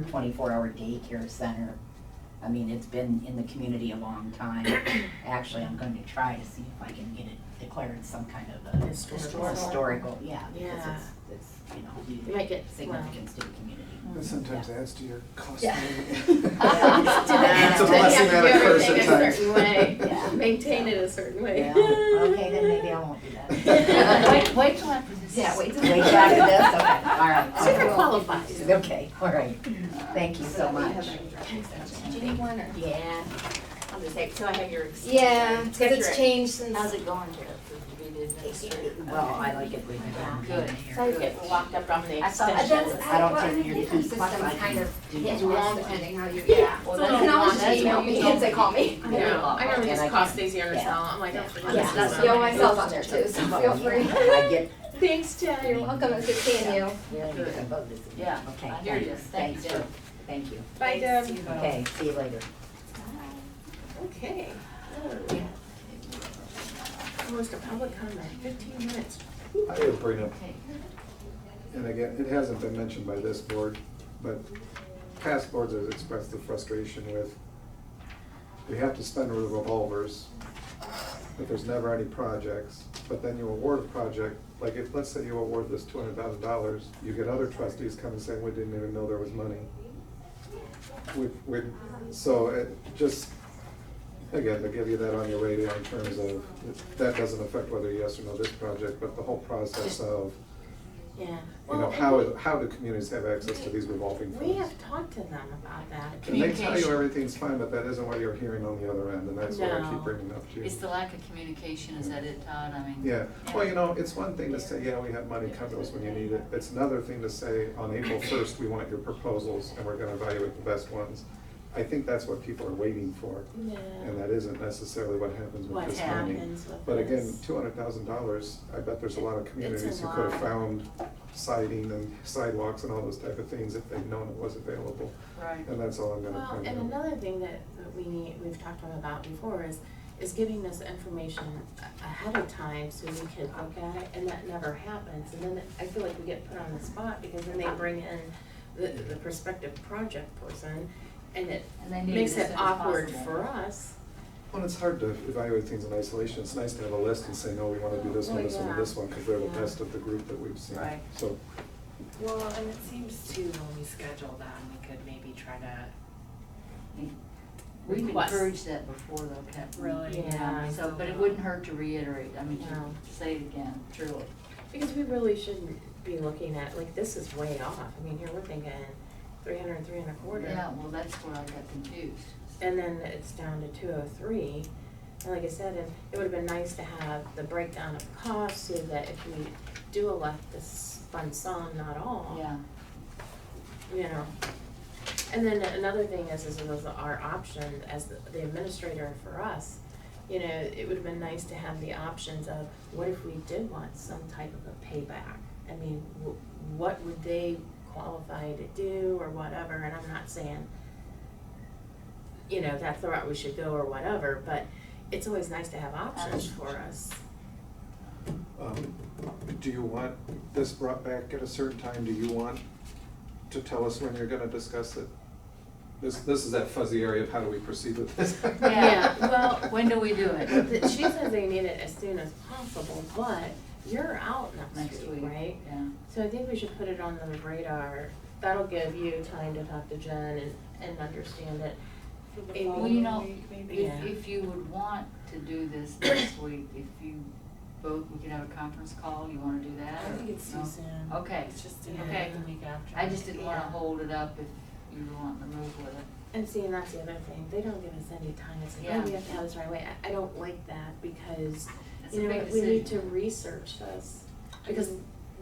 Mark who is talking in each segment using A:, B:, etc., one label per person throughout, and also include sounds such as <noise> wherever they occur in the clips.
A: twenty-four hour daycare center. I mean, it's been in the community a long <coughs> time. Actually, I'm going to try to see if I can get it declared some kind of a.
B: Historical.
A: Historical, yeah, because
B: Yeah.
A: it's, it's, you know,
B: You might get- <laughs>
A: significance to the community. <laughs>
C: And sometimes
A: Yeah.
C: adds to your cost. <laughs>
A: Yeah.
C: It's a
B: You
C: blessing
B: have to
C: and
B: do
C: a curse
B: everything
C: at
B: a
C: times.
B: certain way.
A: Yeah.
B: Maintain it a certain way.
A: Yeah, okay, <laughs> then
B: <laughs>
A: maybe I won't do that.
D: Wait, wait till after this. Yeah,
A: <laughs>
D: wait till.
A: Wait after this, okay, all right.
B: Super qualifies.
A: Okay, all right, thank you so much.
D: Do you need one or?
B: Yeah, I'll just say, so I have your. ex-
D: Yeah,
B: It's
D: because
B: got your-
D: it's changed
B: How's
D: since.
B: it going, Jared, for you to administer?
A: Well, I like it when you're
B: Good, so you get locked up on the
D: I saw-
B: extension.
D: that's-
A: I don't
D: well,
A: take
D: the
A: your
D: different
A: keys, plus
D: systems
A: I
D: kind
A: can
D: of
A: do
D: hit
A: that.
D: and miss depending how you, yeah.
B: Well,
D: So they
B: that's
D: can always
B: not
D: just
B: us,
D: email
B: you
D: me
B: don't-
D: if they call me.
B: <laughs> I know, I remember
A: And I
B: these
A: can-
B: cost days here in
A: yeah.
B: town, I'm like,
A: Yeah.
B: oh. for
D: Yeah,
B: goodness, that's
D: you know,
B: not
D: my
B: good.
D: cell's on there too, so feel free.
A: I get,
B: Thanks, Jen.
D: You're welcome, it's good seeing you.
A: yeah, you can vote this.
B: Yeah,
A: Okay,
B: I hear
A: thank
B: you.
A: you,
B: Thank
A: thanks,
B: you.
A: for- thank you.
B: Bye, Deb.
A: Okay, see you later.
B: Okay. Oh, Almost a public comment, fifteen minutes.
C: I would bring up, and again, it hasn't been mentioned by this board, but past boards have expressed the frustration with, we have to spend with revolvers, but there's never any projects. But then you award a project, like if, let's say you award this two hundred thousand dollars, you get other trustees come and say, we didn't even know there was money. We, we, so it just, Again, to give you that on your radar in terms of, that doesn't affect whether yes or no this project, but the whole process of,
B: Yeah.
C: you know,
B: Well,
C: how, how do communities have access to these revolving
B: We
C: funds?
B: have talked to them about that.
C: And they tell you
E: Communication.
C: everything's fine, but that isn't what you're hearing on the other end, and that's what I
B: No.
C: keep bringing up to you.
E: It's the lack of communication, is that it, Todd? I mean.
C: Yeah, well, you know, it's one thing to say, yeah, we have money, come to us when you need it. It's another thing to say, on April first, we want your proposals, and we're gonna evaluate the best ones. I think that's what people are waiting for,
B: Yeah.
C: and that isn't necessarily what happens with
B: What
C: this money.
B: happens with
C: But again,
B: this?
C: two hundred thousand dollars, I bet there's a lot of communities who could
B: lot.
C: have found siding and sidewalks and all those type of things if they'd known it was available.
E: Right.
C: And that's all I'm gonna
B: Well,
C: point out.
B: and another thing that that we need, we've talked to them about before is, is giving this information a- ahead of time so we can look at it, and that never happens. And then I feel like we get put on the spot because then they bring in the, the prospective project person, and it
E: And they need
B: makes
E: it as
B: it
E: soon as
B: awkward
E: possible.
B: for us.
C: Well, it's hard to evaluate things in isolation. It's nice to have a list and say, no, we wanna do this one,
B: Well,
C: this one,
B: yeah.
C: and this one, because they're the
B: Yeah.
C: best of the group that we've seen.
E: Right.
C: So,
F: Well, and it seems too, when we schedule them, we could maybe try to,
E: We've
B: Request.
E: encouraged that before though, Captain.
F: Really?
B: Yeah.
E: So, but it wouldn't hurt to reiterate, I mean,
B: No.
E: to say it again, truly.
B: Because we really shouldn't be looking at, like, this is way off. I mean, here we're thinking three hundred, three and a quarter.
E: Yeah, well, that's where I got confused.
B: And then it's down to two oh three. And like I said, and it would have been nice to have the breakdown of costs so that if we do elect this fund some, not all.
E: Yeah,
B: You know. And then another thing is, is was our option as the the administrator for us, you know, it would have been nice to have the options of, what if we did want some type of a payback? I mean, wh- what would they qualify to do or whatever, and I'm not saying, you know, that's the route we should go or whatever, but it's always nice to have options for us.
C: um, do you want this brought back at a certain time? Do you want to tell us when you're gonna discuss it? This, this is that fuzzy area of how do we proceed with this?
B: <laughs> Yeah, well,
E: when do we do it?
B: The- She says they need it as soon as possible, but you're out
E: Next week.
B: right?
E: Yeah.
B: So I think we should put it on the radar. That'll give you time to talk to Jen and, and understand it. Amy,
E: Well, you know,
B: Yeah.
E: if, if you would want to do this <coughs> next week, if you both, we could have a conference call, you wanna do that? or no?
F: soon.
E: Okay,
F: It's just
B: in the
F: okay the week after.
E: I just didn't wanna
B: Yeah.
E: hold it up if you were wanting to move with it.
B: And see, and that's the other thing. They don't give us any time. It's like,
E: Yeah.
B: oh, we have to have this right away. I, I don't like that because,
E: It's a
B: you know,
E: big
B: what, we need to
E: decision.
B: research this.
F: Because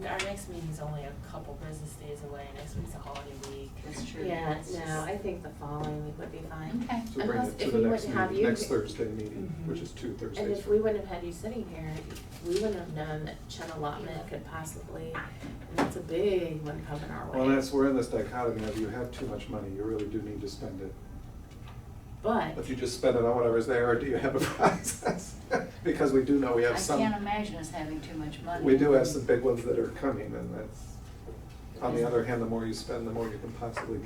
F: our next meeting's only a couple business days away, next week's a holiday week.
E: That's true.
B: Yeah,
E: It's just-
B: no, I think the following week would be
F: Mhm.
B: fine.
E: Okay,
C: So bring
B: Unless-
C: it to
B: if
C: the
B: we
C: next
B: wouldn't have
C: meeting,
B: you- Mm-hmm.
C: next Thursday meeting, which is two Thursdays.
B: And if
C: from
B: we wouldn't have had you sitting here, we wouldn't have known that Chen allotment could possibly, and that's a big one coming our way.
C: Well, that's, we're in this dichotomy of you have too much money, you really do need to spend it.
B: But
C: But you just spend it on whatever's there, or do you have a <laughs> process? Because we do know we
E: I
C: have
E: can't
C: some,
E: imagine us having too much money.
C: we do have some big ones that are coming, and that's, on the other hand, the more you spend, the more you can possibly